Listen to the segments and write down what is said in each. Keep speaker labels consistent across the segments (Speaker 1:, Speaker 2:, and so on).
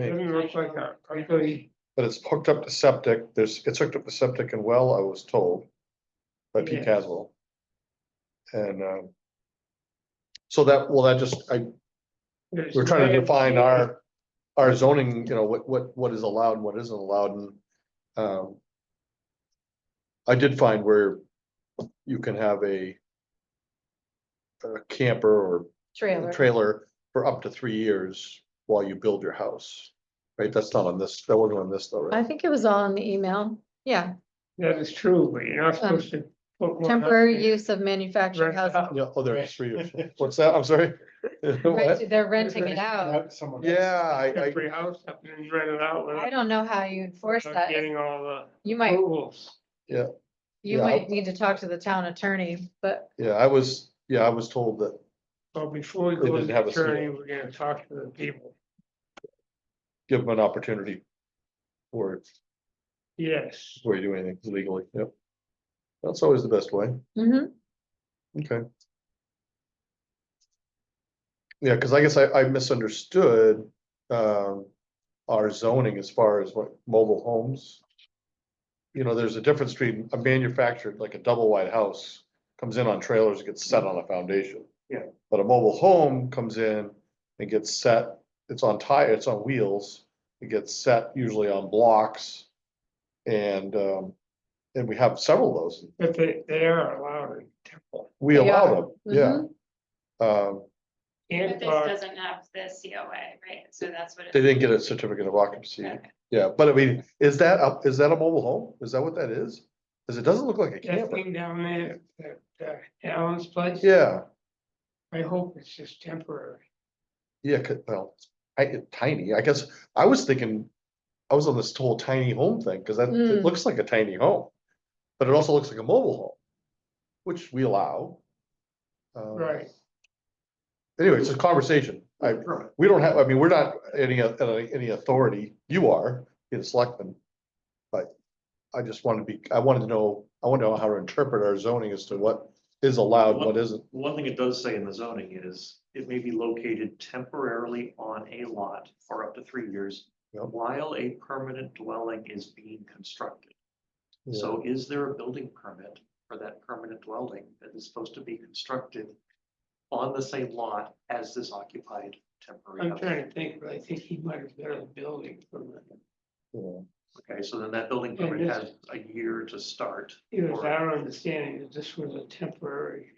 Speaker 1: It doesn't look like a, ugly-
Speaker 2: But it's hooked up to septic, there's, it's hooked up to septic and well, I was told. By Pete
Speaker 1: Yeah.
Speaker 2: Caswell. And, um. So that, well, that just, I, we're trying to define our, our zoning, you know, what, what, what is allowed, and what isn't allowed and, um. I did find where you can have a. A camper or
Speaker 3: Trailer.
Speaker 2: trailer for up to three years while you build your house. Right, that's not on this, that wasn't on this though, right?
Speaker 3: I think it was all in the email. Yeah,
Speaker 1: That is true, but you're not supposed to. put more-
Speaker 3: Um, temporary use of manufactured
Speaker 1: Rent
Speaker 3: housing.
Speaker 1: out.
Speaker 2: Yeah, oh, there it's three years. What's that? I'm sorry. What?
Speaker 3: Right, They're renting it out.
Speaker 4: Someone.
Speaker 2: Yeah, I, I,
Speaker 1: Temporary house up and then rent it out.
Speaker 3: I
Speaker 1: without-
Speaker 3: don't know how you enforce
Speaker 1: without
Speaker 3: that.
Speaker 1: Getting all the
Speaker 3: You might,
Speaker 1: approvals.
Speaker 3: you
Speaker 2: yeah, I-
Speaker 3: might need to talk to the town attorney, but
Speaker 2: yeah, I was, yeah, I was told that,
Speaker 1: So before we
Speaker 2: They
Speaker 1: go to
Speaker 2: didn't
Speaker 1: the
Speaker 2: have a seal.
Speaker 1: attorney, we're gonna talk to the people.
Speaker 2: give them an opportunity. Or,
Speaker 1: Yes,
Speaker 2: before you do anything legally, yep. That's always the best way,
Speaker 3: Mhm.
Speaker 2: okay. Yeah, cause I guess I, I misunderstood, um, our zoning as far as what mobile homes. You know, there's a difference between a manufactured, like a double wide house, comes in on trailers, gets set on a foundation.
Speaker 1: Yeah.
Speaker 2: But a mobile home comes in and gets set, it's on tire, it's on wheels, it gets set usually on blocks. And, um, and we have several of those,
Speaker 1: but they, they are allowed in temple.
Speaker 2: we
Speaker 3: They
Speaker 2: allow
Speaker 3: are. Mm-hmm.
Speaker 2: them, yeah. Um,
Speaker 1: And uh,
Speaker 5: But this doesn't have the COA, right? So that's what. it-
Speaker 2: they didn't get a certificate of occupancy,
Speaker 5: Okay.
Speaker 2: yeah, but I mean, is that a is that a mobile home? Is that what that is? Cause it doesn't look like a
Speaker 1: that
Speaker 2: camper,
Speaker 1: thing down there, that, that Allen's place.
Speaker 2: yeah,
Speaker 1: I hope it's just temporary.
Speaker 2: yeah, 'cause- well, I, it- tiny, I guess, I was thinking. I was on this whole tiny home thing, cause that, it
Speaker 3: Mm.
Speaker 2: looks like a tiny home, but it also looks like a mobile home, which we allow. Um,
Speaker 1: Right.
Speaker 2: Anyway, it's a conversation, I,
Speaker 1: Right.
Speaker 2: we don't have, I mean, we're not any, uh, any authority, you are, in selectmen. But I just want to be, I wanted to know, I want to know how to interpret our zoning as to what is allowed, what isn't.
Speaker 6: One thing it does say in the zoning is it may be located temporarily on a lot for up to three years
Speaker 2: Yep.
Speaker 6: while a permanent dwelling is being constructed.
Speaker 2: So
Speaker 6: So is there a building permit for that permanent dwelling that is supposed to be constructed on the same lot as this occupied temporary?
Speaker 1: I'm trying
Speaker 6: house?
Speaker 1: to think, but I think he might have been a building from the.
Speaker 2: you
Speaker 6: Okay, so then that building
Speaker 1: And
Speaker 6: permit
Speaker 1: this-
Speaker 6: has a year to start.
Speaker 1: It was
Speaker 6: or-
Speaker 1: our understanding that this was a temporary,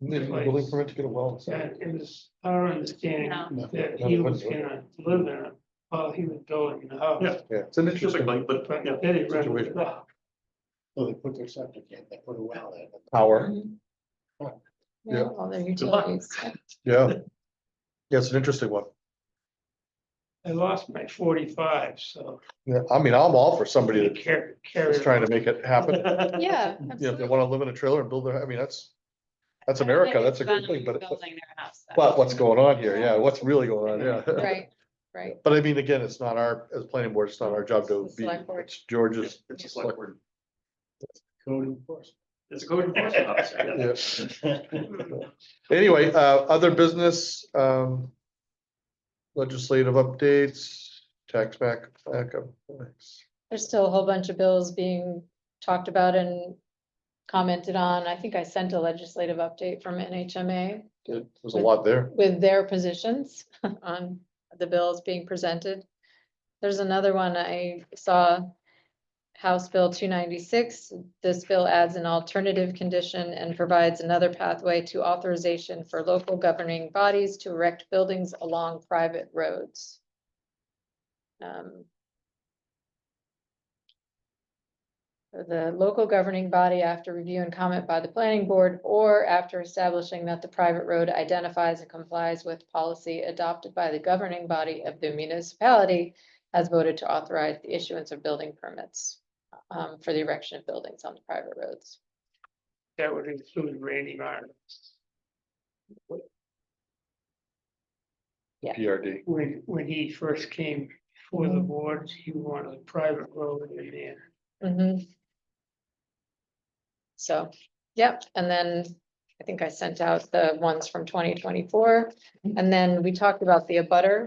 Speaker 2: need a building permit to get a well.
Speaker 1: that it was our understanding
Speaker 5: No.
Speaker 2: No,
Speaker 1: that
Speaker 2: no,
Speaker 1: he
Speaker 2: it
Speaker 1: was
Speaker 2: wouldn't work.
Speaker 1: gonna live in it while he was building the house.
Speaker 6: Yeah.
Speaker 2: Yeah, it's an
Speaker 6: Just
Speaker 2: interesting
Speaker 6: like, but,
Speaker 1: But
Speaker 6: yeah,
Speaker 1: then he rented
Speaker 2: Situation.
Speaker 1: it out.
Speaker 4: So Oh, they put their septic in, they put a well in.
Speaker 2: power,
Speaker 3: Mhm.
Speaker 4: Yeah.
Speaker 3: Yeah, all their
Speaker 6: luck.
Speaker 3: utilities.
Speaker 2: yeah. Yeah, it's an interesting one.
Speaker 1: I lost my forty-five, so
Speaker 2: Yeah, I mean, I'm all for somebody
Speaker 1: I
Speaker 2: that
Speaker 1: carry,
Speaker 2: is
Speaker 1: carry.
Speaker 2: trying to make it happen.
Speaker 3: Yeah.
Speaker 2: You know, if they
Speaker 3: absolutely.
Speaker 2: wanna live in a trailer and build their, I mean, that's, that's
Speaker 5: I don't think
Speaker 2: America, that's a
Speaker 5: it's
Speaker 2: good
Speaker 5: fun
Speaker 2: thing, but,
Speaker 5: Building their house. though.
Speaker 2: but what's going on here? Yeah, what's really going on? Yeah.
Speaker 3: Right, right.
Speaker 2: But I mean, again, it's not our, as planning board, it's not our job to
Speaker 3: It's the
Speaker 2: be,
Speaker 3: select board.
Speaker 2: it's George's.
Speaker 6: It's a select word.
Speaker 4: Code enforcement.
Speaker 6: It's a code enforcement officer. yeah.
Speaker 2: yeah. Anyway, uh, other business, um. Legislative updates, tax back, back up. thanks.
Speaker 3: There's still a whole bunch of bills being talked about and commented on. I think I sent a legislative update from NHMA
Speaker 2: There's a lot there.
Speaker 3: with their positions on the bills being presented. There's another one I saw, House Bill two ninety-six. This bill adds an alternative condition and provides another pathway to authorization for local governing bodies to erect buildings along private roads. Um, The local governing body, after review and comment by the planning board, or after establishing that the private road identifies and complies with policy adopted by the governing body of the municipality, has voted to authorize the issuance of building permits um, for the erection of buildings on the private roads.
Speaker 1: That would include Randy Martin.
Speaker 3: Yeah.
Speaker 2: PRD.
Speaker 1: When, when he first came before the board, he wanted a private road in
Speaker 3: Mm-hmm.
Speaker 1: there.
Speaker 3: Mhm. So, yep, and then I think I sent out the ones from twenty twenty-four. And then we talked about the abutter